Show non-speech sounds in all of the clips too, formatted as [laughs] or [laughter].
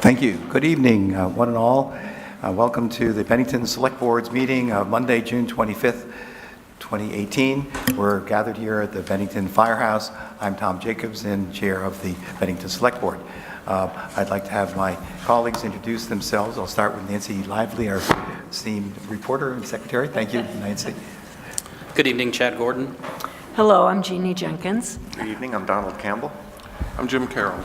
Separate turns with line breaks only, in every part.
Thank you. Good evening, uh, one and all. Uh, Welcome to the Bennington Select Board's meeting of Monday, June 25th, 2018. We're gathered here at the Bennington Firehouse. I'm Tom Jacobson, Chair of the Bennington Select Board. Uh, I'd like to have my colleagues introduce themselves. I'll start with Nancy Lively, our esteemed reporter and secretary. Thank you, Nancy.
Good evening, Chad Gordon.
Hello, I'm Jeannie Jenkins.
Good evening, I'm Donald Campbell.
I'm Jim Carroll.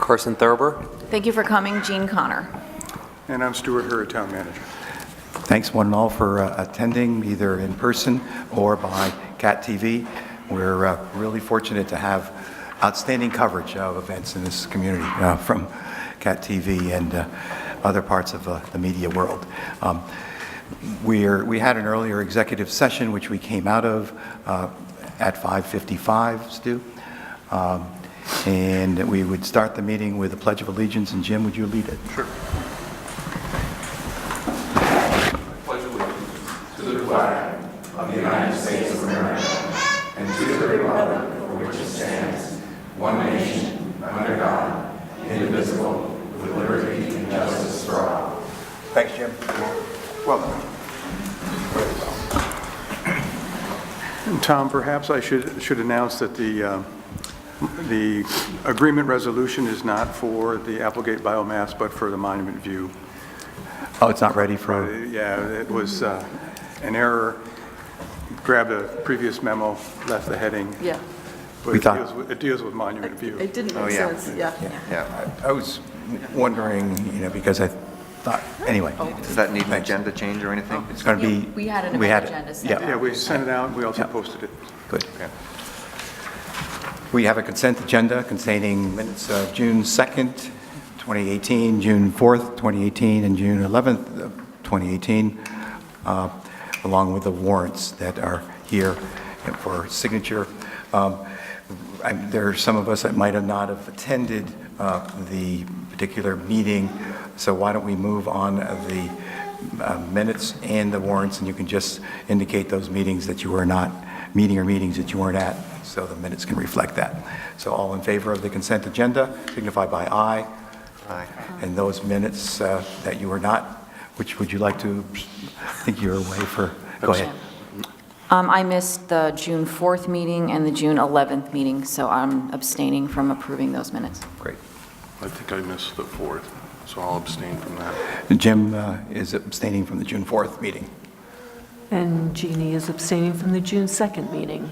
Carson Thurber.
Thank you for coming, Jean Connor.
And I'm Stuart Hurd, Town Manager.
Thanks one and all for uh, attending, either in person or by CAT TV. We're uh, really fortunate to have outstanding coverage of events in this community uh, from CAT TV and uh, other parts of uh, the media world. Um, We're, we had an earlier executive session, which we came out of uh, at 5:55, Stu. Um, And we would start the meeting with a pledge of allegiance, and Jim, would you lead it? Thanks, Jim.
Tom, perhaps I should, should announce that the, uh, the agreement resolution is not for the Applegate Biomass, but for the Monument View.
Oh, it's not ready for...
Uh, Yeah, it was uh, an error, grabbed a previous memo, left the heading.
Yeah,
but
We
it
thought-
deals with- It deals with Monument View.
it didn't
Oh,
make
yeah.
sense, yeah.
Yeah,
I was wondering, you know, because I thought, anyway,
Oh. does that need an
Thanks.
agenda change or anything?
it's going to
Yeah,
be...
we had it in
we
our
had it.
agenda set
Yeah,
Yeah, we sent it out, and we also posted it.
good.
Okay.
We have a consent agenda containing minutes of June 2nd, 2018, June 4th, 2018, and June 11th, of 2018, uh, along with the warrants that are here for signature. Um, I- There are some of us that might have not have attended uh, the particular meeting, so why don't we move on the uh, minutes and the warrants, and you can just indicate those meetings that you were not, meeting or meetings that you weren't at, so the minutes can reflect that. So all in favor of the consent agenda signify by aye.
Aye.
And those minutes uh, that you were not, which would you like to, I think you're away for, go ahead.
Um, I missed the June 4th meeting and the June 11th meeting, so I'm abstaining from approving those minutes.
Great.
I think I missed the fourth, so I'll abstain from that.
Jim uh, is abstaining from the June 4th meeting.
And Jeannie is abstaining from the June 2nd meeting.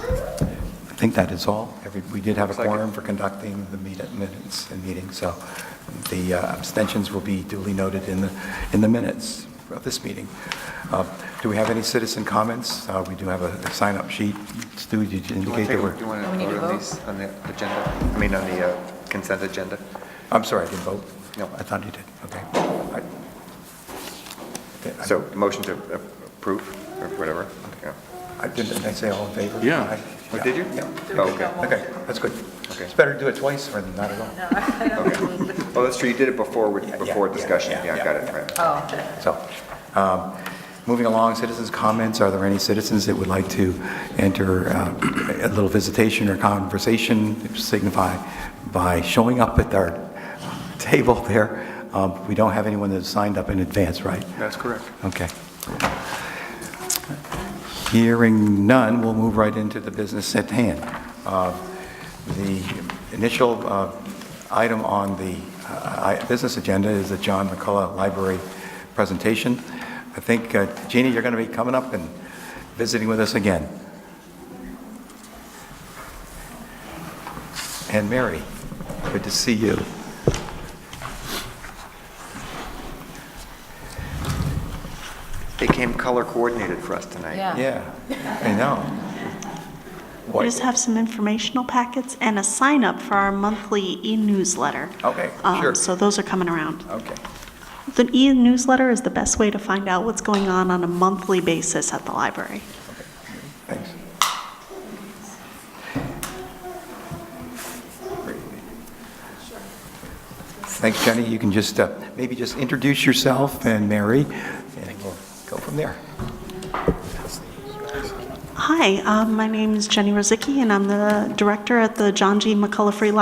I think that is all. Every- We did have a
Second.
quorum for conducting the meet- minutes and meetings, so the uh, abstentions will be duly noted in the, in the minutes of this meeting. Uh, Do we have any citizen comments? Uh, We do have a sign-up sheet. Stu, did you
Do you want
indicate
to
that we're?
do you want
Oh, we
to
need to
vote on
vote?
these, on the agenda? I mean, on the uh, consent agenda?
I'm sorry, I didn't vote.
No.
I thought you did, okay. I- I-
So, motion to a- approve, or whatever? Yeah.
I didn't, did I say all in favor?
Yeah.
Aye.
Oh, did you?
Yeah.
Oh, okay,
Okay, that's good.
Okay.
It's better to do it twice than not at all.
okay. Oh, that's true, you did it before, we-
Yeah, yeah,
before
yeah,
discussion,
yeah,
yeah, I got it, right.
So, um, moving along, citizens' comments, are there any citizens that would like to enter uh, [clears throat] a little visitation or conversation signify by showing up at our [laughs] table there? Um, We don't have anyone that's signed up in advance, right?
That's correct.
Okay. Hearing none, we'll move right into the business at hand. Uh, The initial uh, item on the uh, I- business agenda is the John McCullough Library presentation. I think, uh, Jeannie, you're going to be coming up and visiting with us again. And Mary, good to see you.
They came color coordinated for us tonight.
Yeah, I know.
We
What-
just have some informational packets and a sign up for our monthly e-newsletter.
Okay,
Um,
sure.
So those are coming around.
Okay.
The e-newsletter is the best way to find out what's going on on a monthly basis at the library.
Thanks. Thanks, Jenny. You can just, uh, maybe just introduce yourself and Mary, and we'll go from there.
Hi, um, my name is Jenny Rosicki, and I'm the director at the John G. McCullough Free Library